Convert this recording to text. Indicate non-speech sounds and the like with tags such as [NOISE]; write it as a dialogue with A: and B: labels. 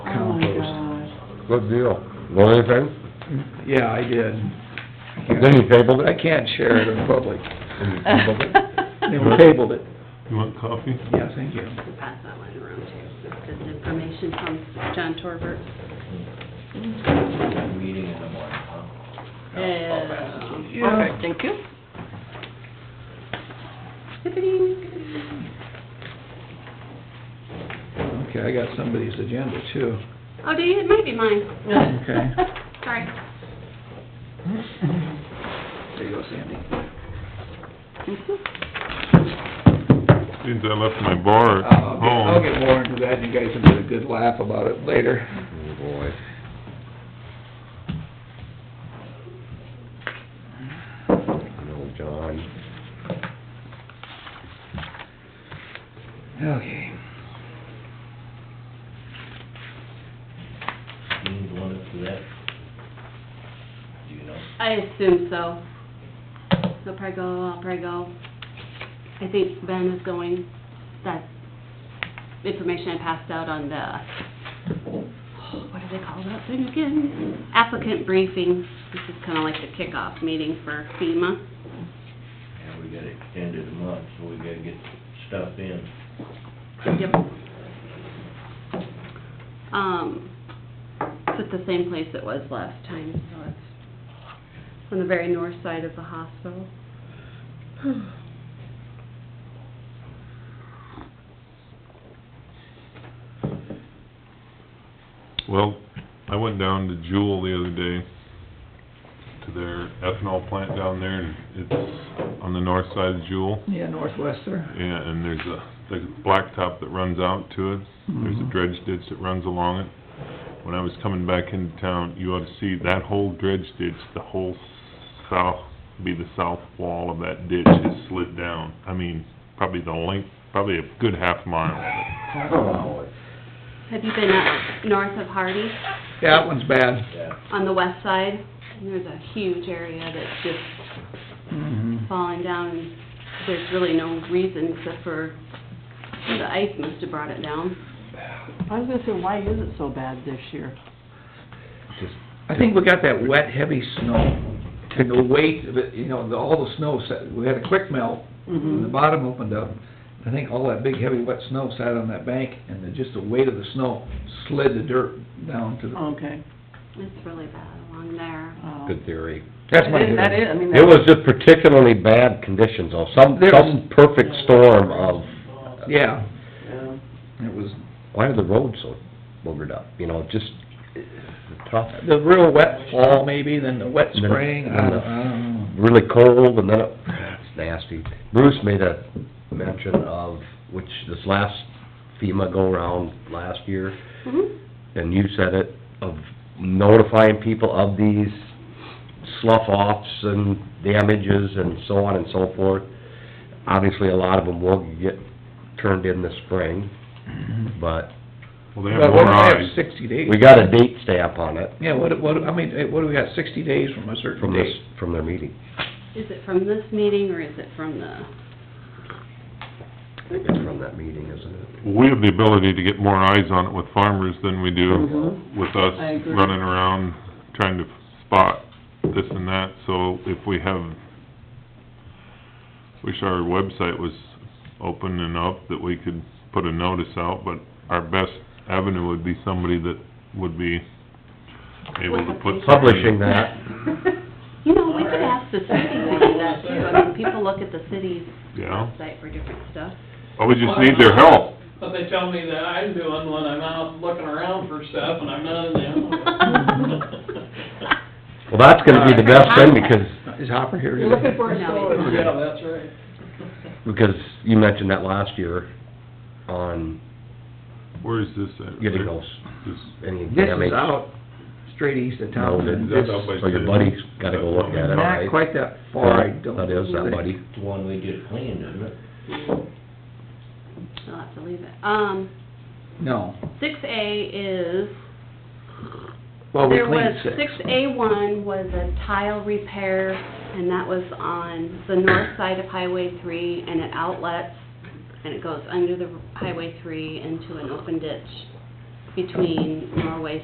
A: Oh,
B: Oh,
C: Good deal. Know anything?
A: Yeah, I did.
C: Then you tabled
A: I
C: it?
A: can't share it in public. [LAUGHS] They
C: Right.
A: tabled it.
D: You want coffee?
A: Yeah, thank you.
E: Pass that one around too. This is information from John Torbert.
F: Meeting in the morning, huh?
E: Yeah.
A: Yeah.
B: Okay, thank you.
A: Okay, I got somebody's agenda too.
E: Oh, do you? It might be mine.
A: Okay.
E: [LAUGHS] Sorry.
A: There you go, Sandy.
D: Means I left my bar at
A: Uh, I'll get- I'll
D: home.
A: get more into that, and you guys can get a good laugh about it later.
C: Oh, boy. Oh, I know John.
A: Okay.
F: You need one up to that? Do you know?
E: I assume so. He'll probably go, I'll probably go. I think Ben is going. That's information I passed out on the, what do they call that thing again? Applicant briefing. This is kinda like the kickoff meeting for FEMA.
F: And we got extended a month, so we gotta get stuff in.
E: Yep. Um, it's at the same place it was last time, so it's on the very north side of the hospital.
D: Well, I went down to Jewel the other day, to their ethanol plant down there, and it's on the north side of Jewel.
A: Yeah, Northwester.
D: Yeah, and there's a, the blacktop that runs out to it, there's a
A: Mhm.
D: dredge ditch that runs along it. When I was coming back into town, you ought to see that whole dredge ditch, the whole south, be the south wall of that ditch is slid down. I mean, probably the length, probably a good half mile.
C: Oh,
E: Have you been up north of Hardy
A: Yeah, that one's bad.
F: Yeah.
E: on the west side? There's a huge area that's just
A: Mhm.
E: falling down and there's really no reason except for the ice must have brought it down.
B: I was gonna say, why is it so bad this year?
C: just,
A: I think we got that wet, heavy snow, and the weight of it, you know, the, all the snow sat, we had a quick melt, and the
C: Mm-hmm.
B: Mhm.
A: bottom opened up. I think all that big, heavy, wet snow sat on that bank, and the, just the weight of the snow slid the dirt down to the,
B: Okay,
E: It's really bad along there.
B: wow.
C: good theory.
A: that's my
B: That is-
A: theory.
B: That is, I mean,
C: It was
B: that,
C: just particularly bad conditions, though, some,
A: There was-
C: some perfect storm of,
A: Yeah,
B: yeah.
A: it was,
C: why are the roads so boogered up, you know, just tough,
A: the real wet fall maybe, then the wet
C: Then-
A: spring, I don't, I don't know.
C: really cold, and then it, it's nasty. Bruce made a mention of, which this last FEMA go-round last year,
E: Mhm.
C: and you said it, of notifying people of these slough-offs and damages and so on and so forth. Obviously, a lot of them will get turned in this spring, but
D: Well, they have
A: But
D: more
A: what do we have,
D: eyes.
A: sixty days?
C: we got a date stamp on it
A: Yeah, what, what, I mean, eh, what do we got, sixty days from a certain
C: from this,
A: date?
C: from their meeting.
E: Is it from this meeting or is it from the?
C: I think it's from that meeting, isn't it?
D: We have the ability to get more eyes on it with farmers than we do
B: Mhm.
D: with us
B: I agree.
D: running around trying to spot this and that, so if we have, wish our website was open and up that we could put a notice out, but our best avenue would be somebody that would be able to put something...
C: Publishing that,
E: You know, we could ask the city to do that too. I mean, people look at the city's
D: Yeah,
E: website for different stuff.
D: well, we just need their help.
G: But they tell me that I'm doing when I'm out looking around for stuff and I'm none
B: [LAUGHS]
G: of
E: [LAUGHS]
G: them. [LAUGHS]
C: well, that's gonna be the best thing, because
A: Is Hopper here
B: You're
A: today?
B: [LAUGHS] looking for a
E: No.
B: story.
G: Yeah, that's right.
C: because you mentioned that last year on
D: Where is this at?
C: getting those,
D: This-
C: any
A: This
C: damage.
A: is out straight east of
C: No,
A: town.
C: that-
D: that's out by
C: So your
D: Sid.
C: buddy's gotta go look at it,
A: Not
C: right?
A: quite that far, I don't.
C: That is that
A: think.
C: buddy.
F: It's the one we just cleaned, isn't it?
E: I'll have to leave it. Um,
A: No,
E: six A is,
A: well, Oh, we
E: there was,
A: cleaned six.
E: six A one was a tile repair, and that was on the north side of Highway three, and it outlets, and it goes under the Highway three into an open ditch between Norway